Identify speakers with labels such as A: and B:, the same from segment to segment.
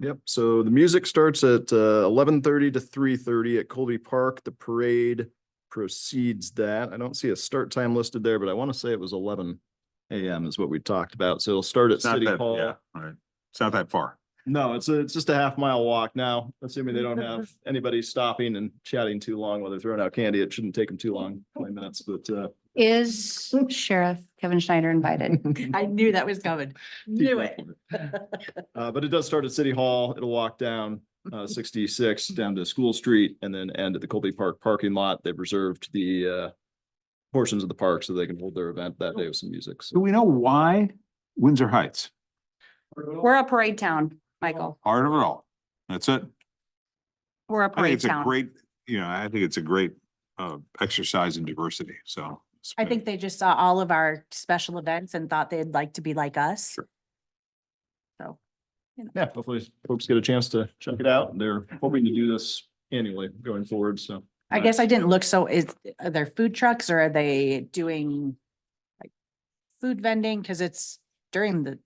A: Yep, so the music starts at uh, eleven thirty to three thirty at Colby Park. The parade proceeds that. I don't see a start time listed there, but I want to say it was eleven AM is what we talked about. So it'll start at
B: It's not
A: City
B: that, yeah,
A: Hall.
B: all right. It's not that far.
A: No, it's, a- it's just a half mile walk now, assuming they don't have anybody stopping and chatting too long while they're throwing out candy. It shouldn't take them too long, twenty minutes, but uh,
C: Is Sheriff Kevin Schneider invited?
D: I knew that was coming. Knew it.
A: Uh, but it does start at City Hall. It'll walk down, uh, sixty-six down to School Street and then end at the Colby Park parking lot. They've reserved the, uh, portions of the park so they can hold their event that day with some music.
B: Do
A: So
B: we know why Windsor Heights?
C: We're a parade town, Michael.
B: Part of it all. That's it.
C: We're a
B: I think
C: parade
B: it's a
C: town.
B: great, you know, I think it's a great uh exercise in diversity, so. it's
D: I
B: been-
D: think they just saw all of our special events and thought they'd like to be like us.
B: Sure.
A: yeah, hopefully folks get a chance to check it out. They're hoping to do this annually going forward. So
D: I guess I didn't look, so is, are there food trucks or are they doing like food vending? Cause it's during the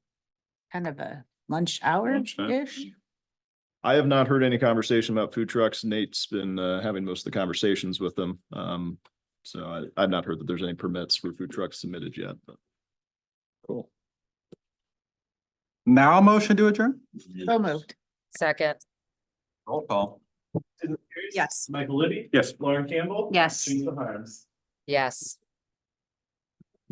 D: kind of a lunch hour-ish.
A: I have not heard any conversation about food trucks. Nate's been, uh, having most of the conversations with them. Um, so I, I've not heard that there's any permits for food trucks submitted yet, but. Cool.
E: Now I'll motion to adjourn?
D: So moved.
F: Second.
E: Roll call.
D: Yes.
G: Michael Libby.
B: Yes.
G: Lauren Campbell.
C: Yes.
G: Teresa Harms.
F: Yes.